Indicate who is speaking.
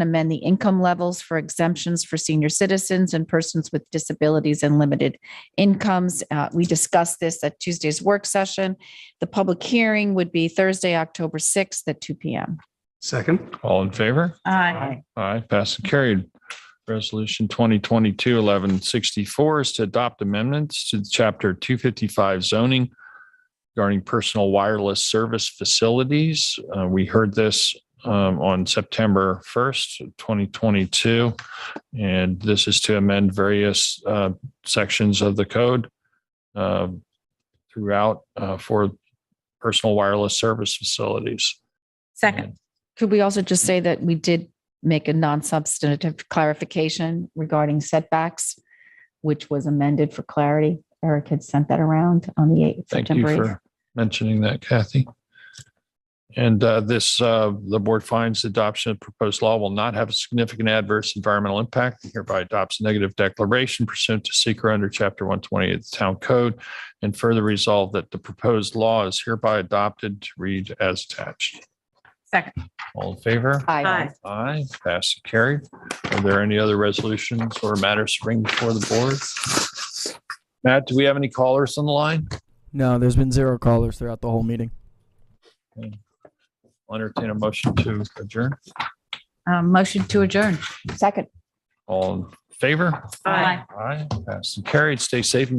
Speaker 1: amend the income levels for exemptions for senior citizens and persons with disabilities and limited incomes. Uh, We discussed this at Tuesday's work session. The public hearing would be Thursday, October 6th at 2 PM.
Speaker 2: Second.
Speaker 3: All in favor?
Speaker 4: Aye.
Speaker 3: Aye, passed and carried. Resolution 2022-1164 is to adopt amendments to Chapter 255 zoning regarding personal wireless service facilities. Uh, We heard this um, on September 1st, 2022. And this is to amend various uh, sections of the code uh, throughout uh, for personal wireless service facilities.
Speaker 4: Second.
Speaker 1: Could we also just say that we did make a non-substantive clarification regarding setbacks, which was amended for clarity? Eric had sent that around on the 8th.
Speaker 3: Thank you
Speaker 1: September 8th.
Speaker 3: for mentioning that, Kathy. And uh, this, uh, the board finds adoption of proposed law will not have a significant adverse environmental impact. and Hereby adopts a negative declaration pursuant to seeker under chapter 128 of the town code. And further resolve that the proposed law is hereby adopted to read as attached.
Speaker 4: Second.
Speaker 3: All in favor?
Speaker 1: Aye.
Speaker 3: Aye, passed and carried. Are there any other resolutions or matters to bring before the board? Matt, do we have any callers on the line?
Speaker 5: No, there's been zero callers throughout the whole meeting.
Speaker 3: I'll entertain a motion to adjourn.
Speaker 4: Um, Motion to adjourn.
Speaker 1: Second.
Speaker 3: All in favor?
Speaker 4: Aye.
Speaker 3: Aye. Passed and carried. Stay safe and be